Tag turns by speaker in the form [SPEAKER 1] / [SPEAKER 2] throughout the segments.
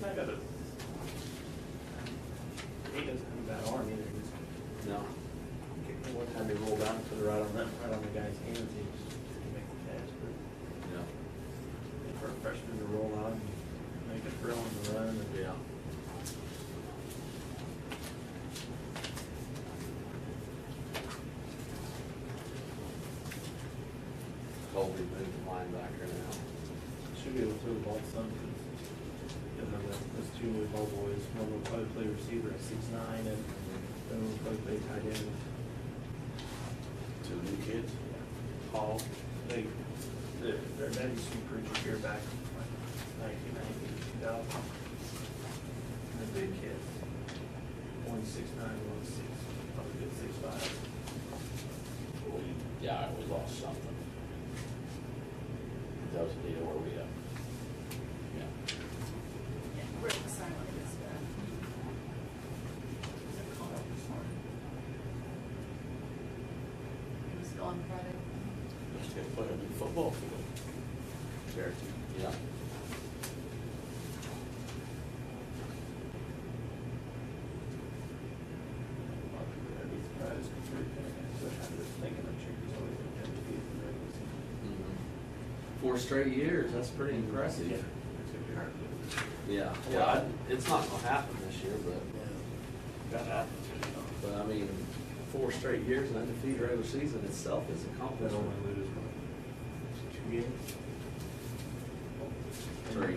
[SPEAKER 1] not gonna. He doesn't have a bad arm either, he's
[SPEAKER 2] No.
[SPEAKER 1] kicked it one time, he rolled out and put it right on that, right on the guy's hands, he was, he made the catch, but
[SPEAKER 2] Yeah.
[SPEAKER 1] for a freshman to roll out and make a throw on the run, and
[SPEAKER 2] Yeah. Colby moved to linebacker now.
[SPEAKER 1] should be able to evolve some, because, you know, that- uh, those two new ball boys, one will probably play receiver at six nine, and then one will probably play tight end.
[SPEAKER 2] Two new kids?
[SPEAKER 1] Paul, they, their, their dad used to be preacher here back in nineteen ninety, two thousand. And the big kid, one six nine, one six, probably good six five.
[SPEAKER 3] Yeah, we lost something. That was the deal where we, uh, yeah,
[SPEAKER 4] Yeah, we're excited with this guy. Called up this morning. He was gone Friday.
[SPEAKER 3] let's get put in the football field.
[SPEAKER 2] Cherokee.
[SPEAKER 3] Yeah.
[SPEAKER 1] I'd be surprised if they're paying that much. I'm just thinking of Cherokee's always been undefeated in the regular season.
[SPEAKER 3] Mm-hmm.
[SPEAKER 2] Four straight years, that's pretty impressive.
[SPEAKER 1] It's gonna be hard to do.
[SPEAKER 2] Yeah, yeah, I- it's not gonna happen this year, but,
[SPEAKER 1] Got altitude, you know.
[SPEAKER 2] but I mean, four straight years and undefeated regular season itself is a
[SPEAKER 1] They
[SPEAKER 2] compliment.
[SPEAKER 1] only lose like two games.
[SPEAKER 2] Three.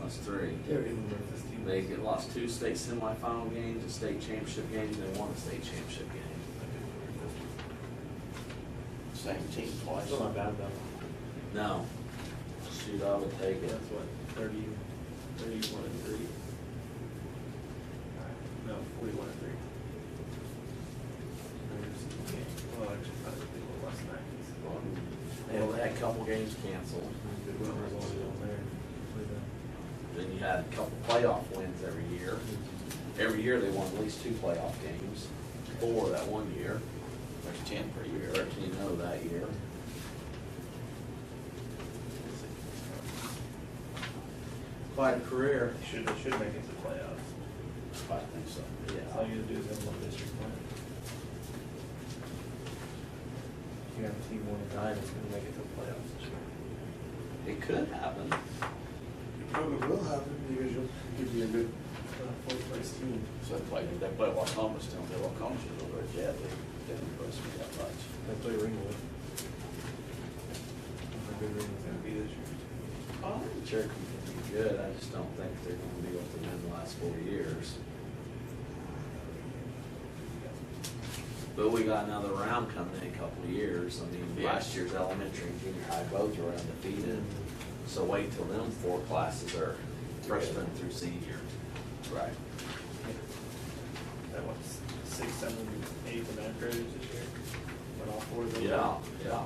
[SPEAKER 2] That's three.
[SPEAKER 1] They're even with this team.
[SPEAKER 2] They get- lost two state semifinal games, a state championship game, and they won a state championship game.
[SPEAKER 3] Same team twice.
[SPEAKER 1] Still not bad though.
[SPEAKER 2] No. Shoot, I would take it.
[SPEAKER 1] That's what, thirty, thirty-one and three? No, forty-one and three. Okay, Well, actually, probably a little less than that.
[SPEAKER 2] They only had a couple games canceled.
[SPEAKER 1] Goodwill was always on there. with
[SPEAKER 2] Then you had a couple playoff wins every year. Every year they won at least two playoff games, four that one year.
[SPEAKER 3] There's ten per
[SPEAKER 2] We
[SPEAKER 3] year.
[SPEAKER 2] were actually know that year. Quite a career.
[SPEAKER 1] the- Should, should make it to playoffs.
[SPEAKER 3] I think so.
[SPEAKER 1] That's all you gotta do is have one district win. You have a team one and nine that's gonna make it to playoffs this year.
[SPEAKER 2] It could happen.
[SPEAKER 1] It probably will happen because you'll give you a good uh, fourth place team.
[SPEAKER 3] So they played, they played Wacoma still, they Wacoma still over at Jet, they didn't impress me that much.
[SPEAKER 1] They play Ringwood. How good Ringwood's gonna be this year.
[SPEAKER 2] Oh, Cherokee can be good, I just don't think they're gonna be able to win the last four years. But we got another round coming in a couple of years, I mean, last year's elementary and junior high both were undefeated. So wait till them four classes are freshman through senior.
[SPEAKER 3] Right.
[SPEAKER 1] That was six, seven, eight of that grades this year. But all four of them.
[SPEAKER 2] Yeah, yeah.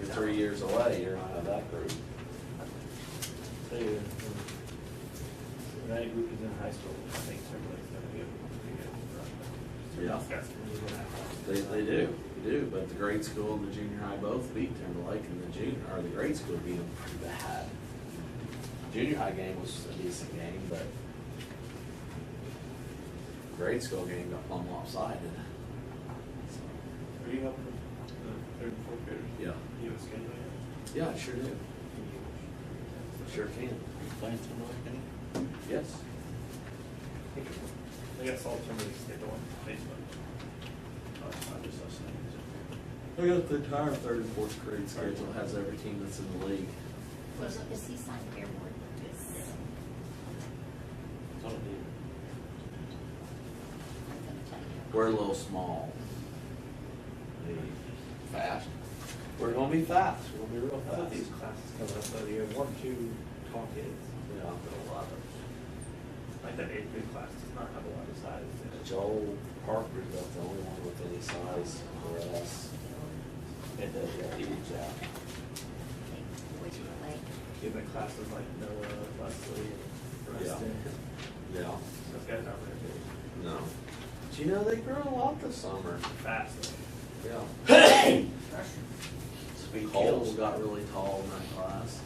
[SPEAKER 2] You're three years away, you're out of that group.
[SPEAKER 1] They, uh, when that group is in high school, I think everybody's gonna be able to get.
[SPEAKER 2] Yeah. They, they do, they do, but the grade school and the junior high both beat Timberlake and the junior, or the grade school beat them pretty bad. Junior high game was a decent game, but grade school game got plumb lopsided. So,
[SPEAKER 1] Are you helping the third and fourth graders?
[SPEAKER 2] Yeah,
[SPEAKER 1] You have a schedule yet?
[SPEAKER 2] yeah, I sure do, sure can,
[SPEAKER 3] Playing Timberlake, any?
[SPEAKER 2] yes.
[SPEAKER 1] They got salt somebody's schedule on Facebook. Uh,
[SPEAKER 3] Oh, I just, I
[SPEAKER 2] I got the entire third and fourth grade schedule, has every team that's in the league.
[SPEAKER 4] Was, is he signed airborne? Yes.
[SPEAKER 3] Thought it did.
[SPEAKER 4] I'm gonna tell you.
[SPEAKER 2] We're a little small. Fast. We're gonna be fast, we're gonna be real
[SPEAKER 1] I thought
[SPEAKER 2] fast.
[SPEAKER 1] these classes coming up, though, you have one, two tall kids.
[SPEAKER 2] Yeah, a lot of.
[SPEAKER 1] Like that eighth grade class does not have a lot of size. in it.
[SPEAKER 2] Joel Parker's about the only one with any size for us.
[SPEAKER 3] It does, yeah.
[SPEAKER 2] Huge out.
[SPEAKER 4] Which you like.
[SPEAKER 1] You have that classes like Noah, Leslie, and
[SPEAKER 2] Yeah.
[SPEAKER 1] Preston.
[SPEAKER 2] Yeah.
[SPEAKER 1] Those guys aren't very big.
[SPEAKER 2] No. Do you know they grow a lot this summer?
[SPEAKER 1] Fast. though.
[SPEAKER 2] Yeah.
[SPEAKER 3] Speed
[SPEAKER 2] Cole
[SPEAKER 3] kills.
[SPEAKER 2] got really tall in that class.